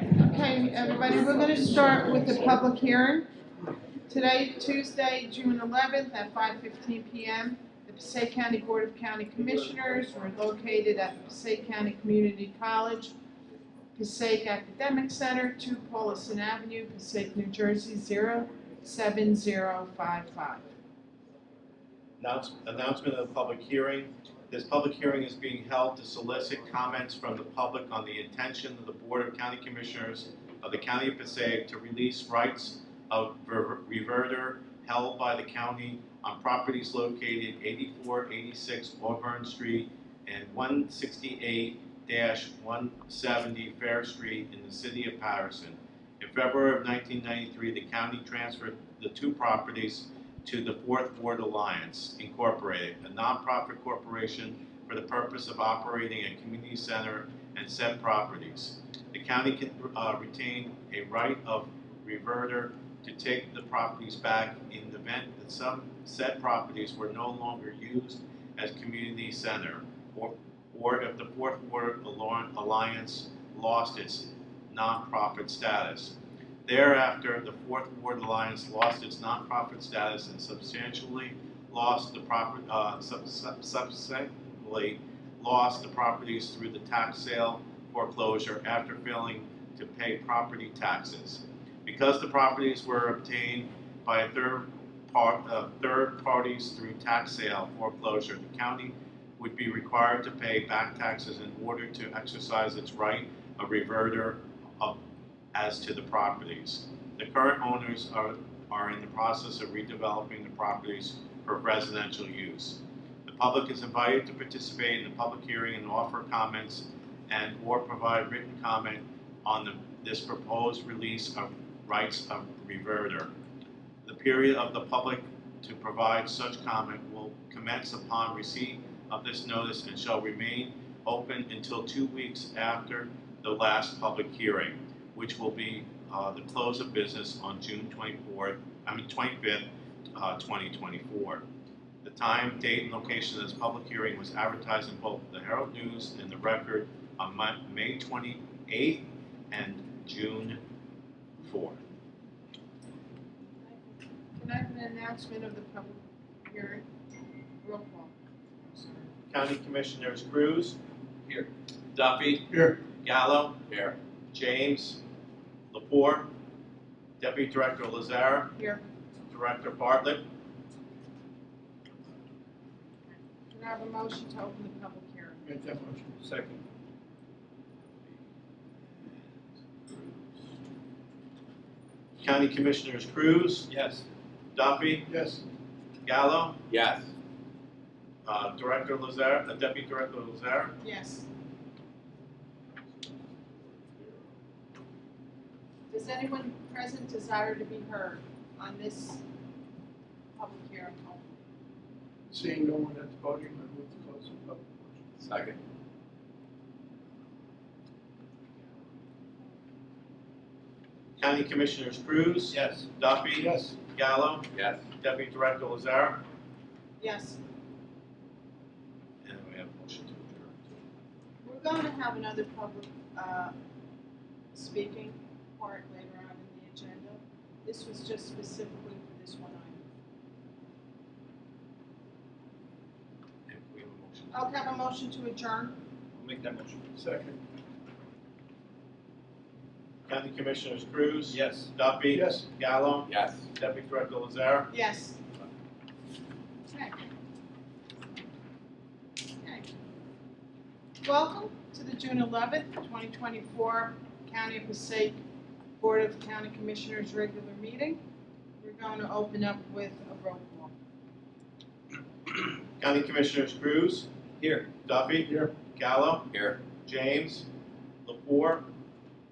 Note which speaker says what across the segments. Speaker 1: morning, everybody. We're gonna start with the public hearing. Today, Tuesday, June eleventh, at five fifteen PM, the Passaic County Board of County Commissioners were located at Passaic County Community College, Passaic Academic Center, two Paulison Avenue, Passaic, New Jersey, 07055.
Speaker 2: Announce- Announcement of the public hearing. This public hearing is being held to solicit comments from the public on the intention of the Board of County Commissioners of the County of Passaic to release rights of ver- reverter held by the county on properties located 84, 86 Auburn Street and 168-170 Fair Street in the city of Patterson. In February of 1993, the county transferred the two properties to the Fourth Ward Alliance Incorporated, a nonprofit corporation for the purpose of operating a community center and said properties. The county can uh, retain a right of reverter to take the properties back in the event that some said properties were no longer used as community center, or, or if the Fourth Ward Alor- Alliance lost its nonprofit status. Thereafter, the Fourth Ward Alliance lost its nonprofit status and substantially lost the proper, uh, sub- sub- subsequently lost the properties through the tax sale foreclosure after failing to pay property taxes. Because the properties were obtained by a third part, uh, third parties through tax sale foreclosure, the county would be required to pay back taxes in order to exercise its right of reverter of as to the properties. The current owners are, are in the process of redeveloping the properties for residential use. The public is invited to participate in the public hearing and offer comments and or provide written comment on the, this proposed release of rights of reverter. The period of the public to provide such comment will commence upon receipt of this notice and shall remain open until two weeks after the last public hearing which will be uh, the close of business on June 24th, I mean 25th, uh, 2024. The time, date, and location of this public hearing was advertised in both the Herald News and the Record on Mon- May 28th and June 4th.
Speaker 1: Can I have an announcement of the public hearing? Roll call. I'm sorry.
Speaker 2: County Commissioners Cruz.
Speaker 3: Here.
Speaker 2: Duffy.
Speaker 3: Here.
Speaker 2: Gallo.
Speaker 3: Here.
Speaker 2: James. Lepore. Deputy Director Lazara.
Speaker 1: Here.
Speaker 2: Director Bartlett.
Speaker 1: Can I have a motion to open the public hearing?
Speaker 3: Make that motion. Second.
Speaker 2: County Commissioners Cruz.
Speaker 3: Yes.
Speaker 2: Duffy,
Speaker 3: Yes.
Speaker 2: Gallo,
Speaker 3: Yes.
Speaker 2: uh, Director Lazar, uh, Deputy Director Lazar,
Speaker 1: Yes. Does anyone present desire to be heard on this public hearing?
Speaker 4: Seeing no one at the podium, I move to close the public portion.
Speaker 3: Second.
Speaker 2: County Commissioners Cruz,
Speaker 3: Yes.
Speaker 2: Duffy,
Speaker 4: Yes,
Speaker 2: Gallo,
Speaker 3: Yes.
Speaker 2: Deputy Director Lazar,
Speaker 1: Yes,
Speaker 2: and we have a motion to adjourn.
Speaker 1: we're going to have another public, uh, speaking part later on in the agenda. This was just specifically for this one item.
Speaker 2: If we have a motion.
Speaker 1: I'll have a motion to adjourn.
Speaker 3: Make that motion.
Speaker 4: second.
Speaker 2: County Commissioners Cruz,
Speaker 3: Yes.
Speaker 2: Duffy,
Speaker 4: Yes.
Speaker 2: Gallo,
Speaker 3: Yes.
Speaker 2: Deputy Director Lazar,
Speaker 1: Yes. Okay. Okay. Welcome to the June eleventh, twenty twenty-four County of Passaic Board of County Commissioners regular meeting. We're going to open up with a roll call.
Speaker 2: County Commissioners Cruz,
Speaker 3: Here.
Speaker 2: Duffy,
Speaker 4: Here.
Speaker 2: Gallo,
Speaker 3: Here.
Speaker 2: James, Lepore,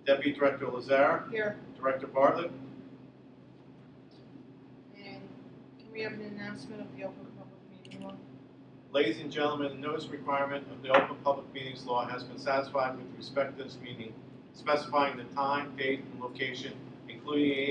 Speaker 2: Deputy Director Lazar,
Speaker 1: Here,
Speaker 2: Director Bartlett,
Speaker 1: and can we have an announcement of the open public meeting law?
Speaker 2: Ladies and gentlemen, the notice requirement of the Open Public Meetings Law has been satisfied with respect to this meeting, specifying the time, date, and location, including a